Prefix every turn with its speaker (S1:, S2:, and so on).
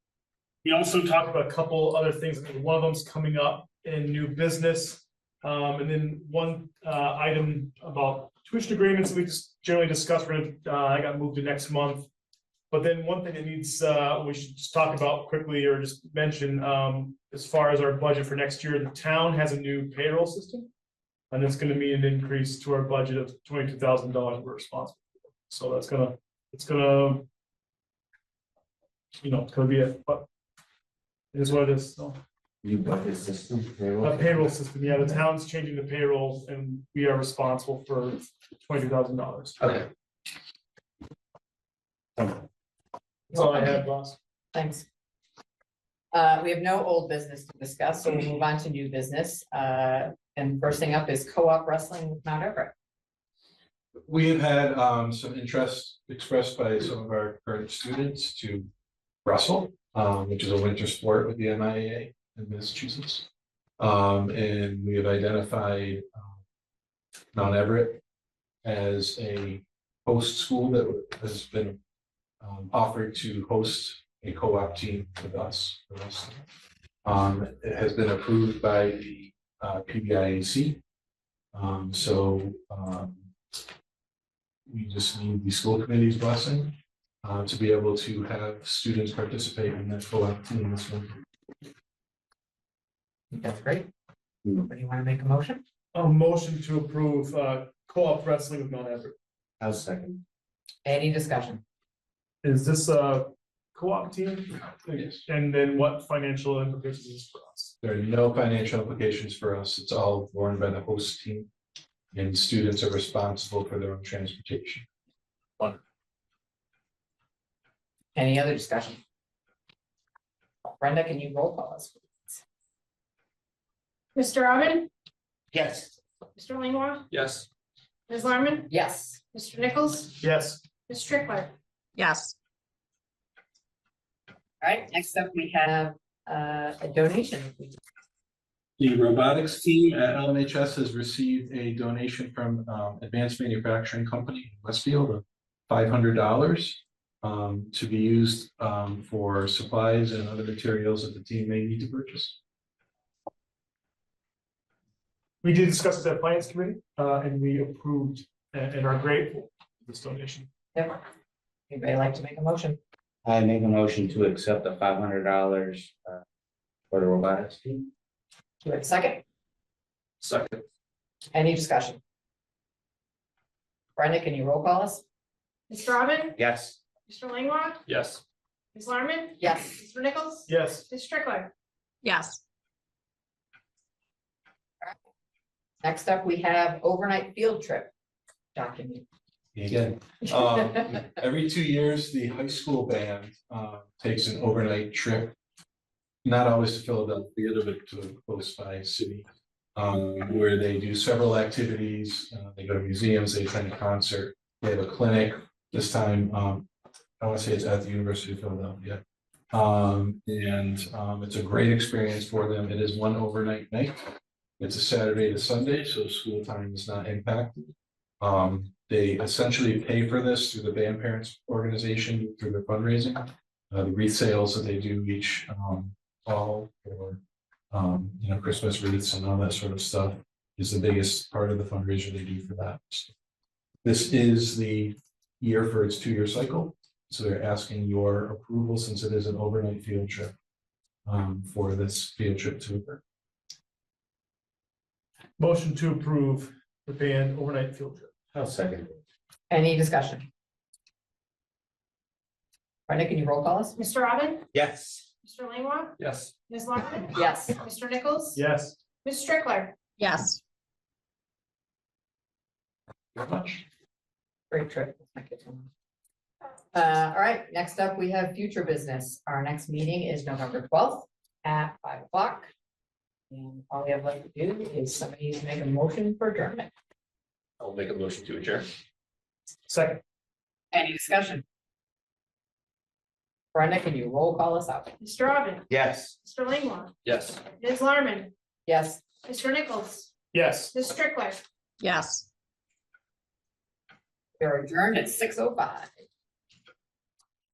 S1: We also talked about a couple other things, I think one of them's coming up in new business. Um, and then one, uh, item about tuition agreements, we just generally discussed, we're gonna, uh, I got moved to next month. But then one thing that needs, uh, we should just talk about quickly or just mention, um, as far as our budget for next year, the town has a new payroll system. And it's gonna mean an increase to our budget of twenty-two thousand dollars we're responsible. for. So that's gonna, it's gonna. You know, it's gonna be a, but. It is what it is, so.
S2: New budget system.
S1: A Uh, payroll system, yeah, the town's changing the payroll and we are responsible for twenty-two thousand dollars.
S2: Okay.
S1: That's all I had, boss.
S3: Thanks. Uh, we have no old business to discuss, so we move on to new business. Uh, and first thing up is co-op wrestling with Mount Everett.
S4: We have had um some interest expressed by some of our current students to wrestle, um which is a winter sport with the MIAA in Massachusetts. Um and we have identified um, Mount Everett as a host school that has been um offered to host a co-op team with us. for wrestling. Um it has been approved by the uh PBIAC. Um so um we just need the school committee's blessing uh, to be able to have students participate in that co-op team this winter.
S3: That's great.
S2: Hmm.
S3: Anybody want to make a motion?
S1: A motion to approve, uh, co-op wrestling with Mount Everett.
S2: I'll second.
S3: Any discussion?
S1: Is this a co-op team?
S4: Yes.
S1: And then what financial implications is for us?
S4: There are no financial implications for us. It's all borne by the host team. And students are responsible for their own transportation.
S3: Any other discussion? Brenda, can you roll call us?
S5: Mr. Robin,
S2: Yes.
S5: Mr. Langwa,
S4: Yes.
S5: Ms. Larmen,
S3: Yes.
S5: Mr. Nichols,
S1: Yes.
S5: Ms. Strickler.
S6: Yes,
S3: All right, next up, we have uh, a donation.
S4: The robotics team at LMHS has received a donation from um, Advanced Manufacturing Company in Westfield of five hundred dollars to be used um, for supplies and other materials that the team may need to purchase.
S1: We did discuss this at finance committee, uh, and we approved and, and are grateful for this donation.
S3: Anybody like to make a motion?
S2: I make a motion to accept the five hundred dollars uh for the robotics team.
S3: Do we have a second?
S4: Second.
S3: Any discussion? Brenda, can you roll call us?
S5: Mr. Robin,
S2: Yes.
S5: Mr. Langwa,
S4: Yes.
S5: Ms. Larmen,
S3: Yes.
S5: Mr. Nichols,
S1: Yes,
S5: Ms. Strickler.
S6: yes.
S3: Next up, we have overnight field trip document.
S4: Again, um, every two years, the high school band uh, takes an overnight trip. Not always to Philadelphia, but to a close by city, um, where they do several activities. Uh, They go to museums, they attend a concert, they have a clinic. This time, um, I want to say it's at the University of Philadelphia. Um, And um, it's a great experience for them. It is one overnight night. It's a Saturday to Sunday, so school time is not impacted. Um, they essentially pay for this through the band parents organization, through their fundraising. Uh, the wreath sales that they do each, um, fall for, um, you know, Christmas wreaths and all that sort of stuff is the biggest part of the fundraiser they do for that. This is the year for its two-year cycle, so they're asking your approval since it is an overnight field trip um, for this field trip to occur.
S1: motion to approve the band overnight field trip.
S2: I'll second.
S3: Any discussion? Brenda, can you roll call us?
S5: Mr. Robin,
S2: Yes.
S5: Mr. Langwa,
S4: Yes.
S5: Ms. Larmen,
S3: Yes.
S5: Mr. Nichols,
S1: Yes,
S5: Ms. Strickler.
S6: Yes,
S4: Very much.
S3: Great trip. Thank you so much. Uh, all right, next up, we have future business. Our next meeting is November twelfth at five o'clock. And all we have left to do is somebody needs to make a motion for adjournment.
S7: I'll make a motion to adjourn.
S1: second,
S3: Any discussion? Brenda, can you roll call us out?
S5: Mr. Robin,
S2: Yes.
S5: Mr. Langwa,
S7: Yes.
S5: Ms. Larmen,
S3: Yes.
S5: Mr. Nichols,
S1: yes.
S5: Ms. Strickler.
S6: yes.
S3: They're adjourned at six oh five.